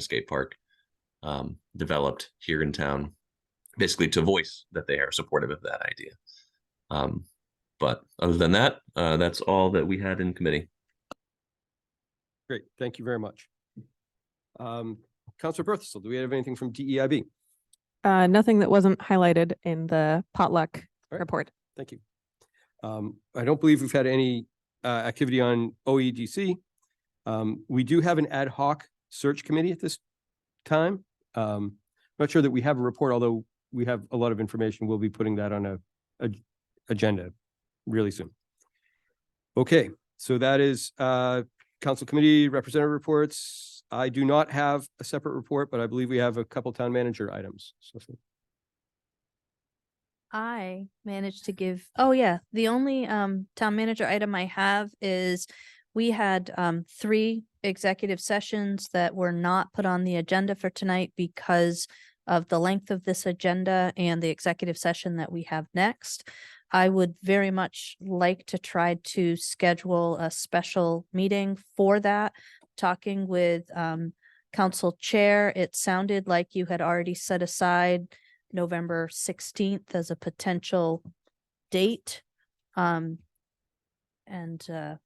skate park um, developed here in town, basically to voice that they are supportive of that idea. Um, but other than that, uh, that's all that we had in committee. Great, thank you very much. Um, Counselor Berthel, do we have anything from E DEIB? Uh, nothing that wasn't highlighted in the potluck right. report. Thank you. Um, I don't believe we've had any, uh, activity on OEDC. Um, we do have an ad hoc search committee at this time. Um, not sure that we have a report, although we have a lot of information. We'll be putting that on a, a- agenda really soon. Okay, so that is, uh, council committee representative reports. I do not have a separate report, but I believe we have a couple town manager items. So- I managed to give, oh yeah, the only um town manager item I have is we had um three executive sessions that were not put on the agenda for tonight because of the length of this agenda and the executive session that we have next. I would very much like to try to schedule a special meeting for that. Talking with um council chair, it sounded like you had already set aside November sixteenth as a potential date. Um, and, uh,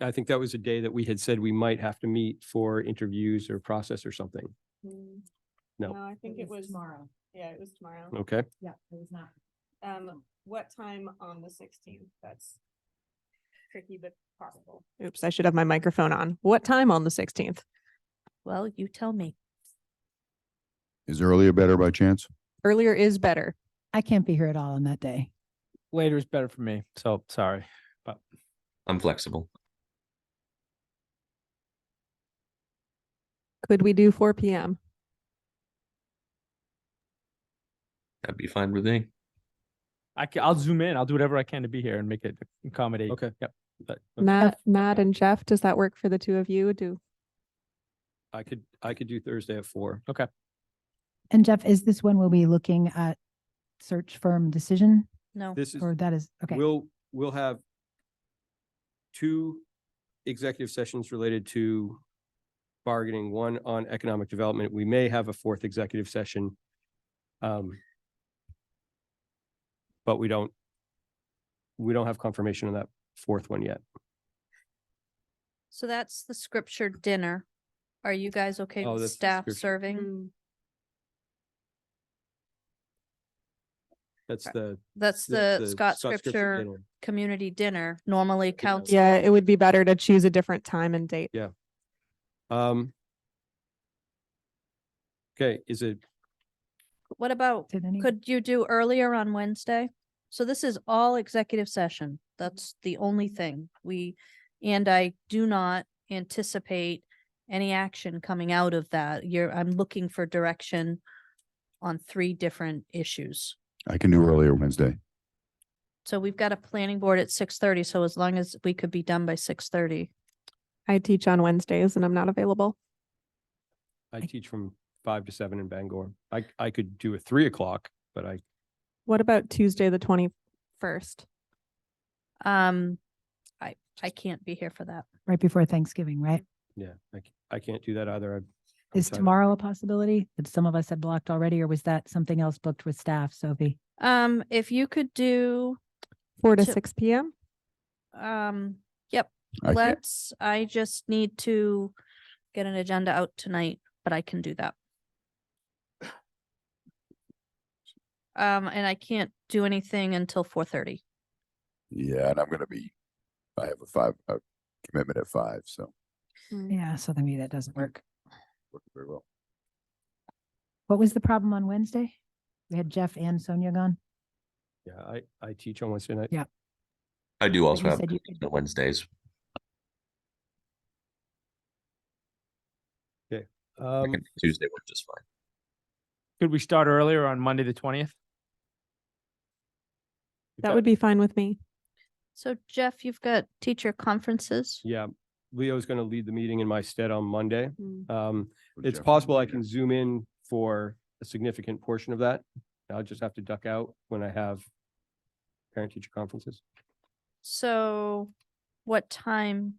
I think that was a day that we had said we might have to meet for interviews or process or something. Mm, No. Mm. I think it was. Tomorrow. Yeah, it was tomorrow. Okay, Yeah, it was not. Um, what time on the sixteenth? That's tricky but possible. Oops, I should have my microphone on. What time on the sixteenth? well, you tell me. Is earlier better by chance? Earlier is better. I can't be here at all on that day. later is better for me. So sorry. I'm flexible. Could we do four P M? That'd be fine with me. I can, I'll zoom in. I'll do whatever I can to be here and make it accommodate. Okay. Yep. But Matt, Matt and Jeff, does that work for the two of you? Do, I could, I could do Thursday at four. And Jeff, is this when we'll be looking at search firm decision No, This is, or that is, okay, we'll, we'll have two executive sessions related to bargaining, one on economic development. We may have a fourth executive session. Um, but we don't, we don't have confirmation on that fourth one yet. so that's the scripture dinner. Are you guys okay Oh, with that's the staff scripture. serving? Mm. That's Right. the. That's the Scott Scripture dinner. Community Dinner, normally council. yeah, it would be better to choose a different time and date. Um. Okay, is it, What about, did any, could you do earlier on Wednesday? So this is all executive session. That's the only thing we, and I do not anticipate any action coming out of that. You're, I'm looking for direction on three different issues. I can do earlier Wednesday. So we've got a planning board at six thirty, so as long as we could be done by six thirty. I teach on Wednesdays and I'm not available. I teach from five to seven in Bangor. I, I could do a three o'clock, but I, What about Tuesday, the twenty-first? Um, I, I can't be here for that. right before Thanksgiving, right? yeah, I, c- I can't do that either. I'm Is sorry. tomorrow a possibility that some of us had blocked already, or was that something else booked with staff, Sophie? Um, if you could do, Four to So- six P M? um, yep, I can't, let's, I just need to get an agenda out tonight, but I can do that. Um, and I can't do anything until four thirty. yeah, and I'm gonna be, I have a five, a commitment at five, so Yeah, so then maybe that doesn't work. working very well. What was the problem on Wednesday? We had Jeff and Sonia gone. Yeah, I, I teach on Wednesday night. Yeah. I do also you have said you could- the Wednesdays. I Um, can- Tuesday works just fine. could we start earlier on Monday the twentieth? That would be fine with me. So Jeff, you've got teacher conferences. yeah, Leo's gonna lead the meeting in my stead on Monday. Mm. Um, Would it's Jeff possible I wanna be can here? zoom in for a significant portion of that. I'll just have to duck out when I have parent teacher conferences. So what time